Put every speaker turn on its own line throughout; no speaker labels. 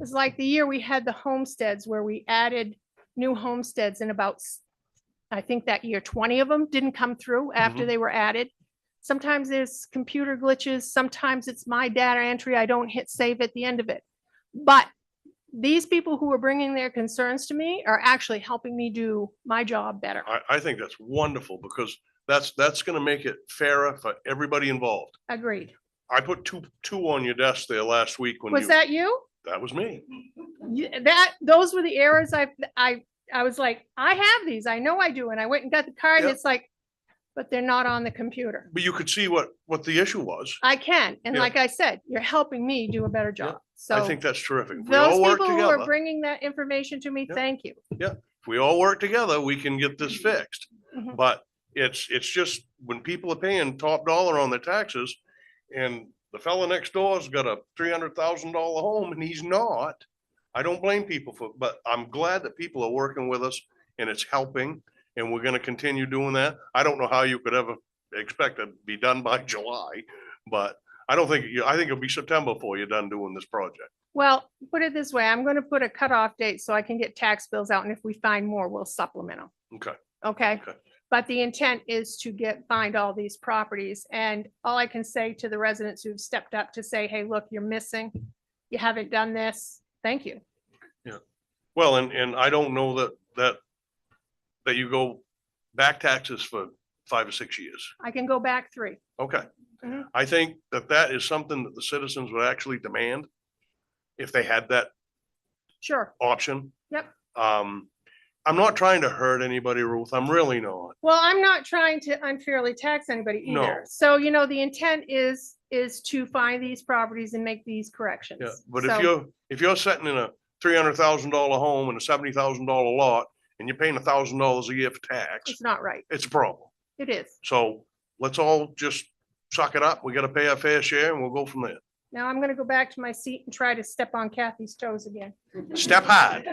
It's like the year we had the homesteads where we added new homesteads and about, s- I think that year twenty of them didn't come through after
Mm-hmm.
they were added. Sometimes there's computer glitches, sometimes it's my data entry, I don't hit save at the end of it. But these people who are bringing their concerns to me are actually helping me do my job better.
I, I think that's wonderful because that's, that's gonna make it fairer for everybody involved.
Agreed.
I put two, two on your desk there last week when
Was
you,
that you?
that was me.
Y- That, those were the errors I, I, I was like, I have these, I know I do, and I went and got the card, and
Yep.
it's like, but they're not on the computer.
But you could see what, what the issue was.
I can, and
Yeah.
like I said, you're helping me do a better
Yeah.
job,
I
so.
think that's terrific. If we
Those
all work
people who are
together,
bringing that information to me,
Yep.
thank you.
if we all work together, we can get this fixed.
Mhm.
But it's, it's just when people are paying top dollar on their taxes and the fella next door's got a three hundred thousand dollar home and he's not. I don't blame people for, but I'm glad that people are working with us and it's helping and we're gonna continue doing that. I don't know how you could ever expect to be done by July, but I don't think, you- I think it'll be September before you're done doing this project.
Well, put it this way, I'm gonna put a cutoff date so I can get tax bills out, and if we find more, we'll supplement them.
Okay.
Okay?
Okay.
But the intent is to get, find all these properties, and all I can say to the residents who've stepped up to say, hey, look, you're missing, you haven't done this, thank you.
Well, and, and I don't know that, that, that you go back taxes for five or six years.
I can go back three.
Okay.
Mhm.
I think that that is something that the citizens would actually demand if they had that
Sure.
option.
Yep.
Um, I'm not trying to hurt anybody, Ruth. I'm really not.
Well, I'm not trying to unfairly tax anybody
No.
either. So, you know, the intent is, is to find these properties and make these corrections.
Yeah, but
So-
if you're, if you're sitting in a three hundred thousand dollar home and a seventy thousand dollar lot and you're paying a thousand dollars a year for tax,
It's not right.
it's a problem.
It is.
So let's all just suck it up. We gotta pay our fair share and we'll go from there.
Now I'm gonna go back to my seat and try to step on Kathy's toes again.
Step hard,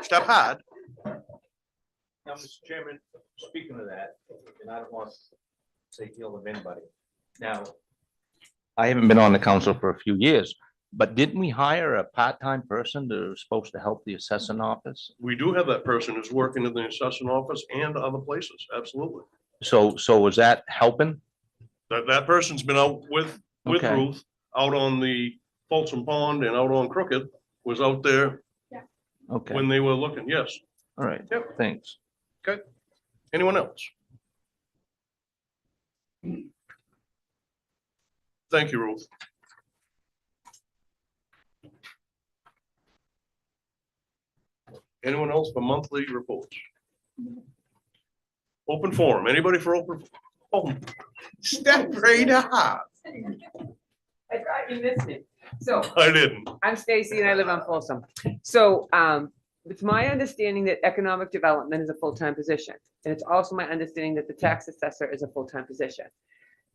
step hard.
Now, Mr. Chairman, speaking of that, and I don't want to say ill of anybody. Now, I haven't been on the council for a few years, but didn't we hire a part-time person that was supposed to help the assessing office?
We do have that person who's working in the assessment office and other places, absolutely.
So, so was that helping?
That, that person's been out with, with
Okay.
Ruth, out on the Folsom Pond and out on Crooked, was out there
Okay, all
when they were looking, yes.
right,
Yep.
thanks.
Anyone else? Thank you, Ruth. Anyone else for monthly reports? Open forum, anybody for open? Oh, Step right up.
I thought you missed it. So
I didn't.
I'm Stacy and I live on Folsom. So um, it's my understanding that economic development is a full-time position. And it's also my understanding that the tax assessor is a full-time position.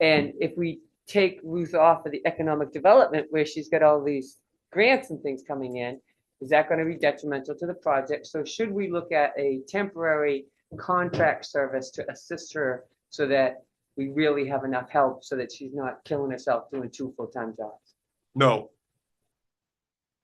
And if we take Ruth off of the economic development where she's got all these grants and things coming in, is that going to be detrimental to the project? So should we look at a temporary contract service to assist her so that we really have enough help so that she's not killing herself doing two full-time jobs?
No,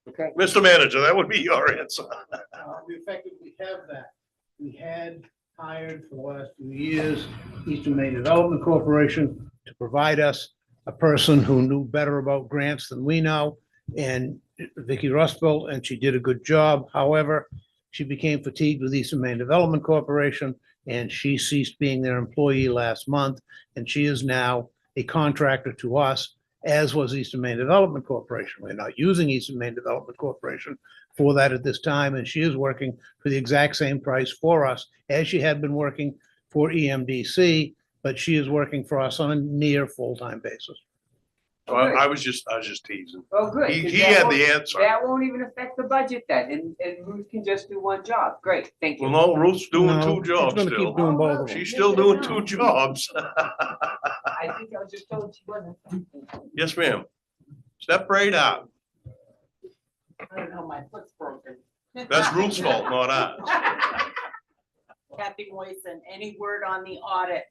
Okay?
Mr. Manager, that would be your answer.
Uh, We effectively have that. We had hired for the last few years Eastern Maine Development Corporation to provide us a person who knew better about grants than we know, and Vicky Rustfeld, and she did a good job. However, she became fatigued with Eastern Maine Development Corporation, and she ceased being their employee last month, and she is now a contractor to us, as was Eastern Maine Development Corporation. We're not using Eastern Maine Development Corporation for that at this time, and she is working for the exact same price for us as she had been working for E EMDC, but she is working for us on a near full-time basis.
So I, I was just, I was just teasing.
Oh, good.
He,
'cause
he
that
had
won't-
the answer.
That won't even affect the budget then, and, and Ruth can just do one job. Great, thank
Well,
you.
no, Ruth's doing
No,
two
she's
jobs
gonna keep
still.
Doing both of them.
She's still doing two jobs.
I think I was just told she wasn't.
Yes, ma'am. Step right up.
I don't know, my foot's broken.
That's Ruth's fault, not ours.
Kathy Moisen, any word on the audit?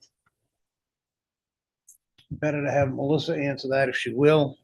Better to have Melissa answer that if she will.